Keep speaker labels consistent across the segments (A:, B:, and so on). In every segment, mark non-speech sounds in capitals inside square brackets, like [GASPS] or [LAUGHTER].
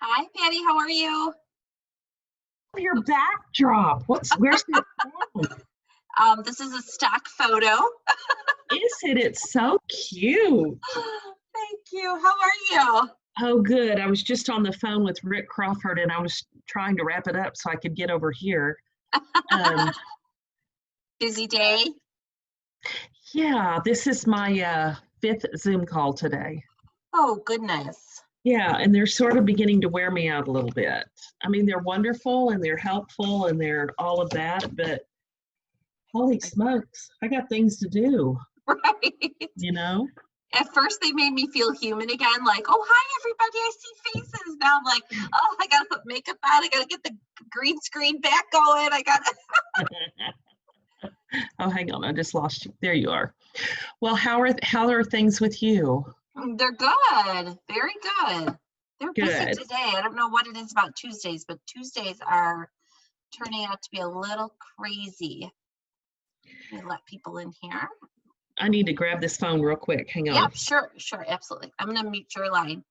A: Hi, Patty, how are you?
B: Your backdrop, what's, where's your phone?
A: Um, this is a stock photo. [GASPS]
B: Is it? It's so cute.
A: Thank you. How are you?
B: Oh, good. I was just on the phone with Rick Crawford and I was trying to wrap it up so I could get over here. Um,
A: Busy day?
B: yeah, this is my uh, fifth Zoom call today.
A: Oh, goodness. [LAUGHS]
B: Yeah, and they're sort of beginning to wear me out a little bit. I mean, they're wonderful and they're helpful and they're all of that, but holy smokes, I got things to do,
A: Right?
B: you know?
A: At first, they made me feel human again, like, oh, hi, everybody, I see faces. Now I'm like, oh, I gotta put makeup on, I gotta get the green screen back going, I gotta.
B: Oh, hang on, I just lost you. There you are. Well, how are how are things with you?
A: Mm, They're good, very good. They're busy
B: Good.
A: today. I don't know what it is about Tuesdays, but Tuesdays are turning out to be a little crazy. Let me let people in here.
B: I need to grab this phone real quick. Hang on.
A: Yeah, sure, sure, absolutely. I'm gonna mute your line.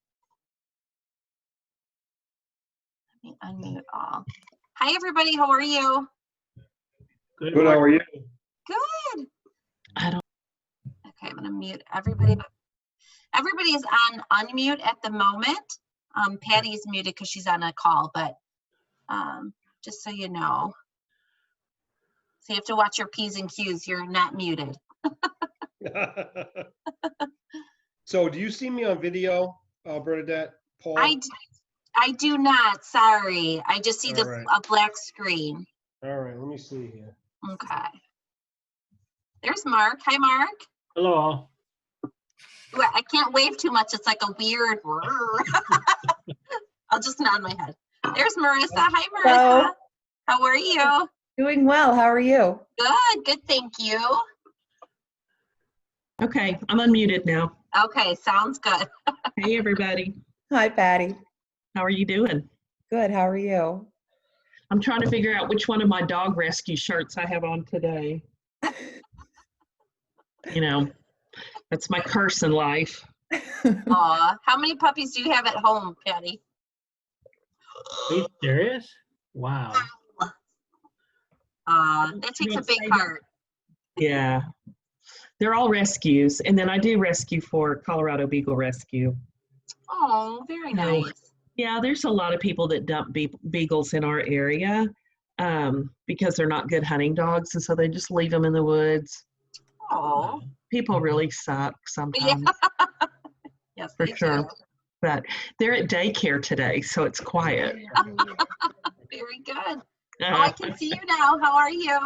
A: Let me unmute all. Hi, everybody, how are you?
C: Good, how are you?
A: Good.
B: I don't.
A: Okay, I'm gonna mute everybody. but- Everybody is on unmute at the moment. Um, Patty is muted because she's on a call, but, um, just so you know. So you have to watch your Ps and Qs. You're not muted.
C: [LAUGHS] So do you see me on video, uh, Bernadette, Paul?
A: I, d- I do not, sorry. I just see the,
C: All right.
A: a black screen.
C: All right, let me see here.
A: Okay. There's Mark. Hi, Mark.
D: Hello.
A: Wa- I can't wave too much. It's like a weird. [LAUGHS] whirr. I'll just nod my head. There's Marissa. Hi,
E: Hello.
A: Marissa. How are you?
E: Doing well. How are you?
A: Good, good, thank you.
B: Okay, I'm unmuted now.
A: Okay, sounds good.
B: Hey, everybody.
E: Hi, Patty.
B: How are you doing?
E: Good. How are you?
B: I'm trying to figure out which one of my dog rescue shirts I have on today. You know, that's my curse in life.
A: Aw, how many puppies do you have at home, Patty?
D: Are you serious? Wow.
A: Aw, that takes a
B: Yes, I
A: big
B: do.
A: heart.
B: Yeah. They're all rescues. And then I do rescue for Colorado Beagle Rescue.
A: Oh, very
B: No.
A: nice.
B: Yeah, there's a lot of people that dump be- beagles in our area um, because they're not good hunting dogs. And so they just leave them in the woods.
A: Oh,
B: People really suck sometimes.
A: yes,
B: For
A: they
B: sure.
A: do.
B: But they're at daycare today, so it's quiet.
A: Very good. Oh, I
B: Uh,
A: can see you now. How are you?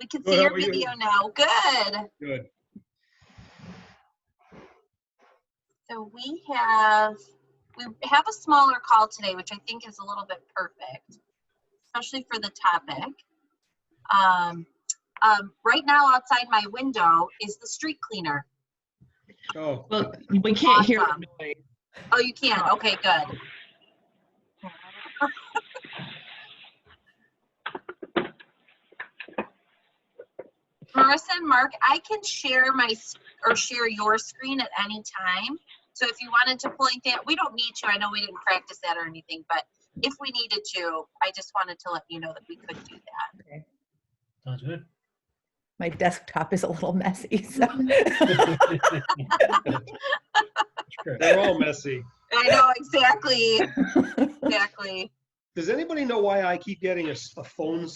A: We can
C: Good,
A: see
C: how
A: your
C: are you?
A: video now. Good.
C: Good.
A: So we have, we have a smaller call today, which I think is a little bit perfect, especially for the topic. Um, um, right now outside my window is the street cleaner.
C: Oh,
B: well, we can't hear
A: Awesome.
B: the noise.
A: Oh, you can? Okay, good. Marissa and Mark, I can share my, s- or share your screen at any time. So if you wanted to point that, we don't need to. I know we didn't practice that or anything, but if we needed to, I just wanted to let you know that we could do that.
D: Sounds good.
E: My desktop is a little messy, so
D: Sure.
C: they're all messy.
A: I know, exactly, exactly.
C: Does anybody know why I keep getting a, s- a phone